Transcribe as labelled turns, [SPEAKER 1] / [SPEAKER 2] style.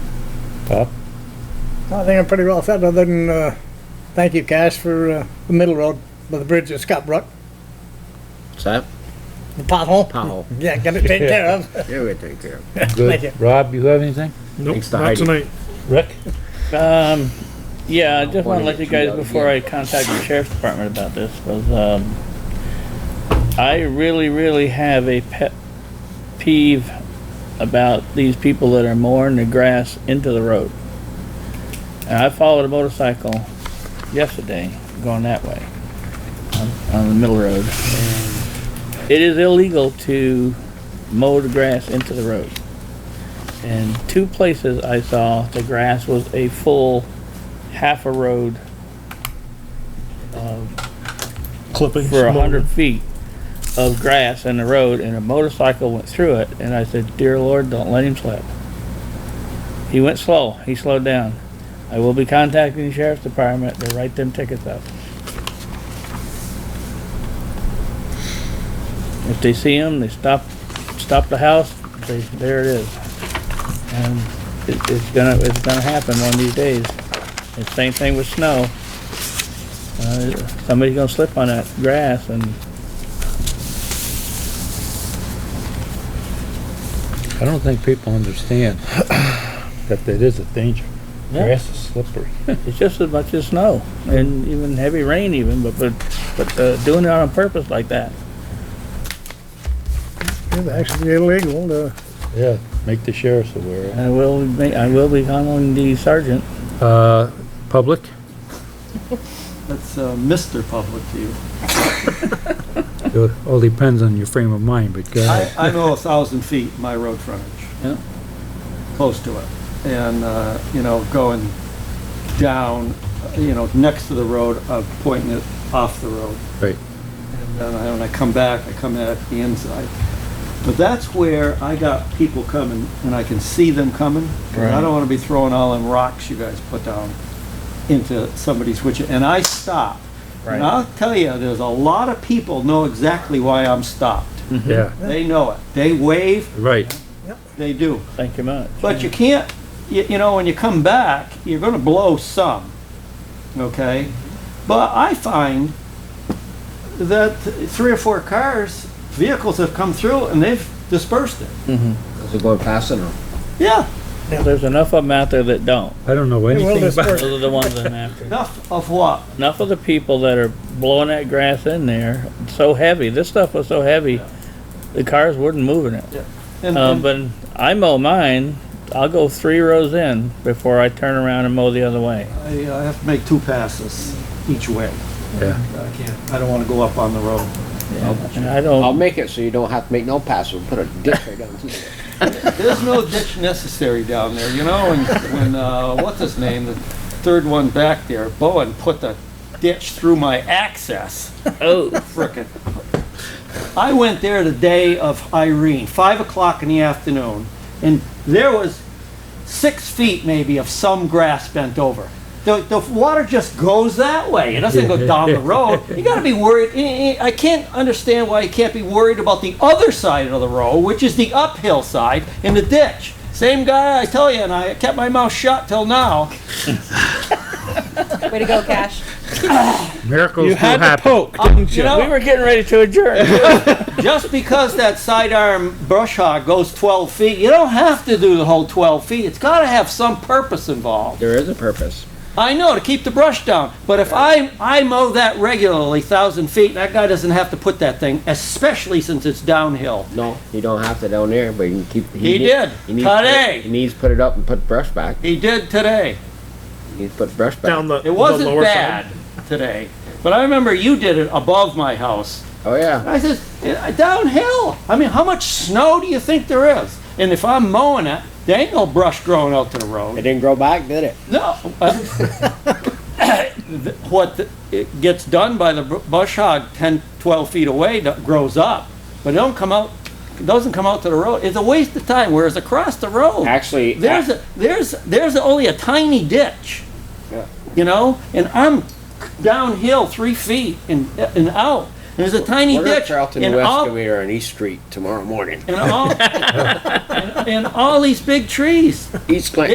[SPEAKER 1] Bob?
[SPEAKER 2] I think I'm pretty well set, other than, uh, thank you, Cash, for, uh, the middle road with the bridge at Scott Brook,
[SPEAKER 3] What's that?
[SPEAKER 2] the pothole.
[SPEAKER 3] Pothole.
[SPEAKER 2] Yeah, get it taken care of.
[SPEAKER 3] Yeah, we take care of it.
[SPEAKER 2] Thank you.
[SPEAKER 1] Good. Rob, you have anything?
[SPEAKER 4] Nope,
[SPEAKER 3] Thanks to
[SPEAKER 4] not
[SPEAKER 3] Heidi.
[SPEAKER 4] tonight.
[SPEAKER 1] Rick?
[SPEAKER 5] Um, yeah, I just wanna let you guys,
[SPEAKER 3] $182
[SPEAKER 5] before I contact the sheriff's department about this, was, um, I really, really have a pet peeve about these people that are mowing the grass into the road. And I followed a motorcycle yesterday going that way, on, on the middle road. It is illegal to mow the grass into the road. In two places I saw the grass was a full half a road um,
[SPEAKER 4] Clipping.
[SPEAKER 5] for a hundred feet of grass in the road and a motorcycle went through it and I said, Dear Lord, don't let him slip. He went slow. He slowed down. I will be contacting the sheriff's department to write them tickets up. If they see him, they stop, stop the house, they, there it is. And it, it's gonna, it's gonna happen one of these days. And same thing with snow. Uh, somebody's gonna slip on that grass and
[SPEAKER 1] I don't think people understand that there is a danger.
[SPEAKER 5] Yeah.
[SPEAKER 1] Grass is slippery.
[SPEAKER 5] it's just as much as snow and even heavy rain even, but, but, but, uh, doing it on purpose like that.
[SPEAKER 2] It's actually illegal to
[SPEAKER 1] Yeah, make the sheriffs aware.
[SPEAKER 5] I will be, I will be calling the sergeant.
[SPEAKER 1] Uh, public?
[SPEAKER 6] That's uh, Mr. Public View.
[SPEAKER 1] It all depends on your frame of mind, but go
[SPEAKER 6] I,
[SPEAKER 1] ahead.
[SPEAKER 6] I know a thousand feet my road frontage.
[SPEAKER 5] Yeah.
[SPEAKER 6] Close to it. And, uh, you know, going down, you know, next to the road, uh, pointing it off the road.
[SPEAKER 1] Right.
[SPEAKER 6] And then I- when I come back, I come at the inside. But that's where I got people coming, and I can see them coming. 'cause I
[SPEAKER 5] Right.
[SPEAKER 6] don't want to be throwing all them rocks you guys put down into somebody's which, and I stop. And I'll tell you, there's a lot of people know exactly why I'm stopped.
[SPEAKER 1] Yeah,
[SPEAKER 6] They know it. They wave,
[SPEAKER 1] right.
[SPEAKER 6] they do.
[SPEAKER 5] Thank you much.
[SPEAKER 6] But you can't, you, you know, when you come back, you're gonna blow some, okay? But I find that three or four cars, vehicles have come through and they've dispersed it.
[SPEAKER 3] Is it going past it or?
[SPEAKER 6] Yeah,
[SPEAKER 5] There's enough of them out there that don't.
[SPEAKER 1] I don't know anything
[SPEAKER 2] this
[SPEAKER 1] about
[SPEAKER 5] Those are the ones I'm after.
[SPEAKER 6] enough of what?
[SPEAKER 5] Enough of the people that are blowing that grass in there, so heavy, this stuff was so heavy, the cars wouldn't move in it. Um,
[SPEAKER 6] And- and-
[SPEAKER 5] but I mow mine, I'll go three rows in before I turn around and mow the other way.
[SPEAKER 6] I, I have to make two passes each way.
[SPEAKER 1] Yeah.
[SPEAKER 6] I can't, I don't wanna go up on the road.
[SPEAKER 5] And I don't.
[SPEAKER 3] I'll make it so you don't have to make no pass. We'll put a ditch right down here.
[SPEAKER 6] There's no ditch necessary down there, you know, and when, uh, what's his name, the third one back there, Bowen put the ditch through my access.
[SPEAKER 5] Oh,
[SPEAKER 6] frickin'. I went there the day of Irene, five o'clock in the afternoon, and there was six feet maybe of some grass bent over. The, the water just goes that way. It doesn't go down the road. You got to be worried. Eh, eh, I can't understand why you can't be worried about the other side of the road, which is the uphill side in the ditch. Same guy, I tell you, and I kept my mouth shut till now.
[SPEAKER 7] Way to go, Cash.
[SPEAKER 1] Miracles do happen.
[SPEAKER 5] poke.
[SPEAKER 6] You know,
[SPEAKER 5] We were getting ready to adjourn.
[SPEAKER 6] just because that sidearm brush hog goes 12 feet, you don't have to do the whole 12 feet. It's got to have some purpose involved.
[SPEAKER 3] There is a purpose.
[SPEAKER 6] I know to keep the brush down, but if I I mow that regularly, thousand feet, that guy doesn't have to put that thing, especially since it's downhill.
[SPEAKER 3] No, you don't have to down there, but you can keep.
[SPEAKER 6] He
[SPEAKER 3] need-
[SPEAKER 6] did.
[SPEAKER 3] He needs to put it-
[SPEAKER 6] Today.
[SPEAKER 3] He needs to put it up and put brush back.
[SPEAKER 6] He did today.
[SPEAKER 3] He needs to put brush back.
[SPEAKER 4] Down the, the
[SPEAKER 6] It
[SPEAKER 4] lower
[SPEAKER 6] wasn't
[SPEAKER 4] side.
[SPEAKER 6] bad today, but I remember you did it above my house.
[SPEAKER 3] Oh, yeah.
[SPEAKER 6] I says, "Eh, downhill. I mean, how much snow do you think there is? And if I'm mowing it, there ain't no brush growing out to the road.
[SPEAKER 3] It didn't grow back, did it?
[SPEAKER 6] No. uh, What the- it gets done by the br- bush hog 10, 12 feet away do- grows up, but it don't come out, it doesn't come out to the road. It's a waste of time, whereas across the road,
[SPEAKER 3] Actually.
[SPEAKER 6] there's, a- there's, there's only a tiny ditch.
[SPEAKER 3] Yeah.
[SPEAKER 6] You know, and I'm downhill three feet and, and out. There's a tiny
[SPEAKER 3] We're at
[SPEAKER 6] ditch.
[SPEAKER 3] Charlton
[SPEAKER 6] and
[SPEAKER 3] West
[SPEAKER 6] all-
[SPEAKER 3] and we are on East Street tomorrow morning.
[SPEAKER 6] And all, and and all these big trees.
[SPEAKER 3] East Clinton.